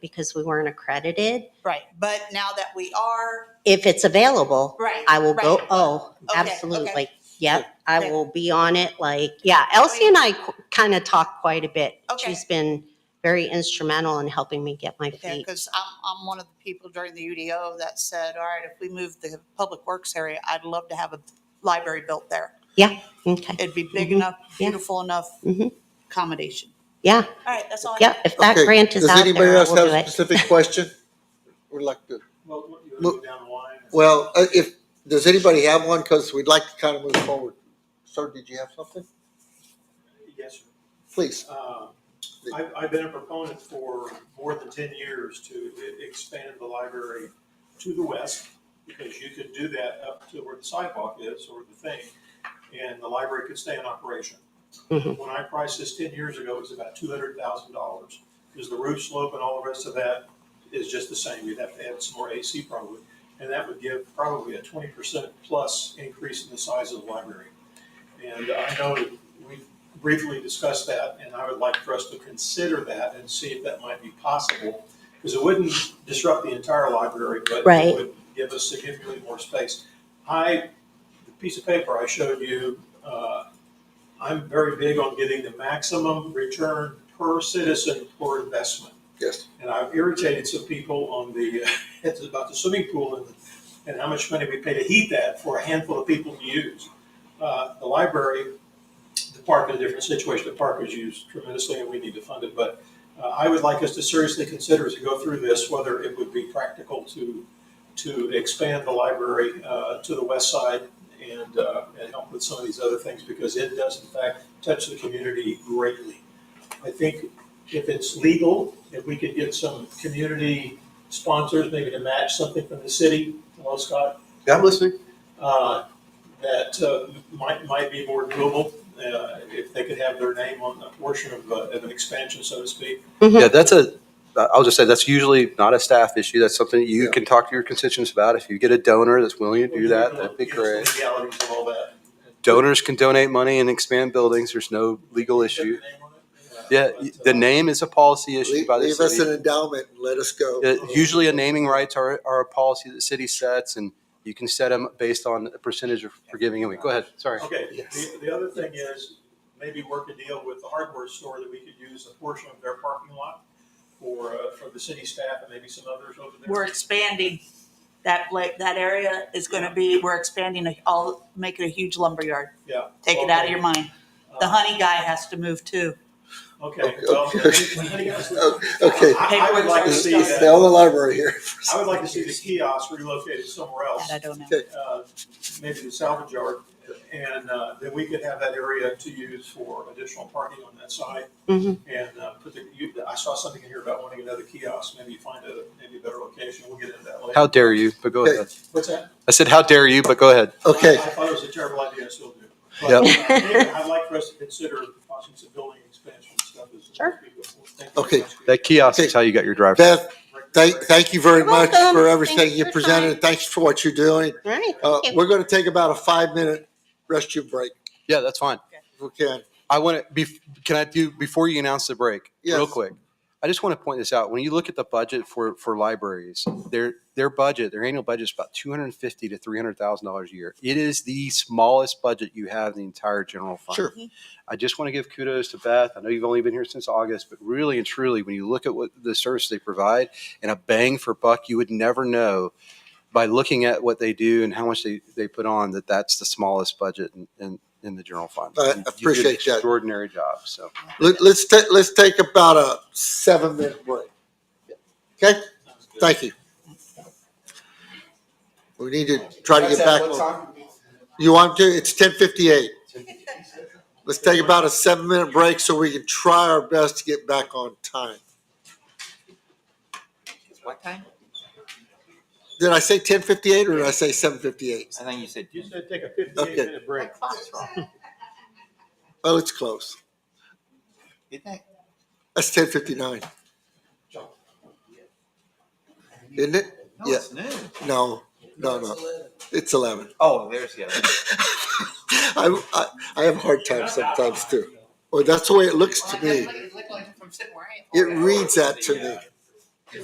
because we weren't accredited. Right, but now that we are, If it's available, right. I will go, right. oh, Okay, okay. absolutely. Yep, I Okay. will be on it. Like, yeah, Elsie and I kind of talk quite a bit. Okay. She's been very instrumental in helping me get my Yeah, feet. because I'm, I'm one of the people during the UDO that said, all right, if we move the public works area, I'd love to have a library built there. Okay, It'd be big Mhm. enough, Yeah. beautiful enough Mhm. accommodation. yeah, All right, that's all I yeah, have. if that Okay, grant is does out anybody there, I else will have do a it. Specific question? Would like to, Well, what- you Look- go down the line. and- well, uh, if, does anybody have one? Cause we'd like to kind of move forward. Sir, did you have something? Yes, sir. Please. Uh, I've, I've been a proponent for more than ten years to e- expand the library to the west, because you could do that up to where the sidewalk is, or the thing, and the library could stay in operation. Mhm. When I priced this ten years ago, it was about two hundred thousand dollars, because the roof slope and all the rest of that is just the same, you'd have to add some more AC probably, and that would give probably a twenty percent plus increase in the size of the library. And I know that we briefly discussed that, and I would like for us to consider that and see if that might be possible. Because it wouldn't disrupt the entire library, but Right. it would give us significantly more space. I, the piece of paper I showed you, uh, I'm very big on getting the maximum return per citizen per investment. Yes. And I've irritated some people on the, it's about the swimming pool and, and how much money we pay to heat that for a handful of people to use. Uh, the library, the park is a different situation. The park is used tremendously and we need to fund it. But uh, I would like us to seriously consider as we go through this, whether it would be practical to, to expand the library uh, to the west side and, uh, and help with some of these other things because it does in fact touch the community greatly. I think if it's legal, if we could get some community sponsors, maybe to match something from the city, hello Scott, I'm listening. uh, that uh, might, might be more doable, uh, if they could have their name on a portion of, uh, of an expansion, so to speak. Mhm. Yeah, that's a, I'll just say, that's usually not a staff issue. That's something you Yeah. can talk to your constituents about. If you get a donor that's willing to do that, that'd be Give us the great. Legalities of all that. Donors can donate money and expand buildings. There's no legal issue. Yeah, But, the uh, name is a policy issued Leave by the leave us an city. Uh, endowment and let us go. Yeah, Usually a naming rights are, are a policy that the city sets and you can set them based on a percentage of forgiving away. Go ahead, sorry. Okay, Yes. the, the other thing is, maybe work a deal with the hardware store that we could use a portion of their parking lot for, uh, for the city staff and maybe some others over there. We're expanding. That, la- that area is going to be, we're expanding, a- all, make it a huge lumberyard. Yeah. Take it out of your mind. The Uh, honey guy has to move too. Okay, well, I, Okay, I would like to see it's the that, only library here. I would like to see the kiosk relocated somewhere else. That I don't know. uh, maybe the salvage yard, and uh, then we could have that area to use for additional parking on that side. Mhm. Mm-hmm. And uh, put the, you, I saw something in here about wanting another kiosk, maybe you find a, maybe a better location, we'll get into that later. How dare you, but go Okay. ahead. What's that? I said, how dare you, but go ahead. Okay, I thought it was a terrible idea, I still do. But Yep. uh, anyway, I'd like for us to consider possibly some building expansion stuff as. Sure. Thank you. Okay. That kiosk is how you got your drive. Beth, thank, thank you very You're much welcome. for Thanks everything for you your presented. time. Thanks for what you're doing. All right, Uh, thank you. we're gonna take about a five-minute rest your break, Yeah, that's fine. if we can. I want to be, can I do, before you announce the break, real Yes. quick? I just want to point this out. When you look at the budget for, for libraries, their, their budget, their annual budget is about two hundred and fifty to three hundred thousand dollars a year. It is the smallest budget you have in the entire general fund. Sure. I just want to give kudos to Beth. I know you've only been here since August, but really and truly, when you look at what the service they provide and a bang for buck, you would never know by looking at what they do and how much they, they put on that that's the smallest budget in, in, in the general fund. I You- you did an appreciate that. Extraordinary job. So. Let, us ta, let's take about a seven-minute break. Okay? Thank you. We need to try to get back. on- You want to? It's ten fifty-eight. Let's take about a seven-minute break so we can try our best to get back on time. What time? Did I say ten fifty-eight or did I say seven fifty-eight? I think you said You ten. said take a fifty-eight minute break. Oh, it's close. Didn't I? That's ten fifty-nine. Isn't it? No, Oh, it's noon. No, no, no. It's eleven. Oh, there's the other. I, I, I have a hard time sometimes too. Or that's the way it looks to me. It looked like from sitting where I am. It reads that to me.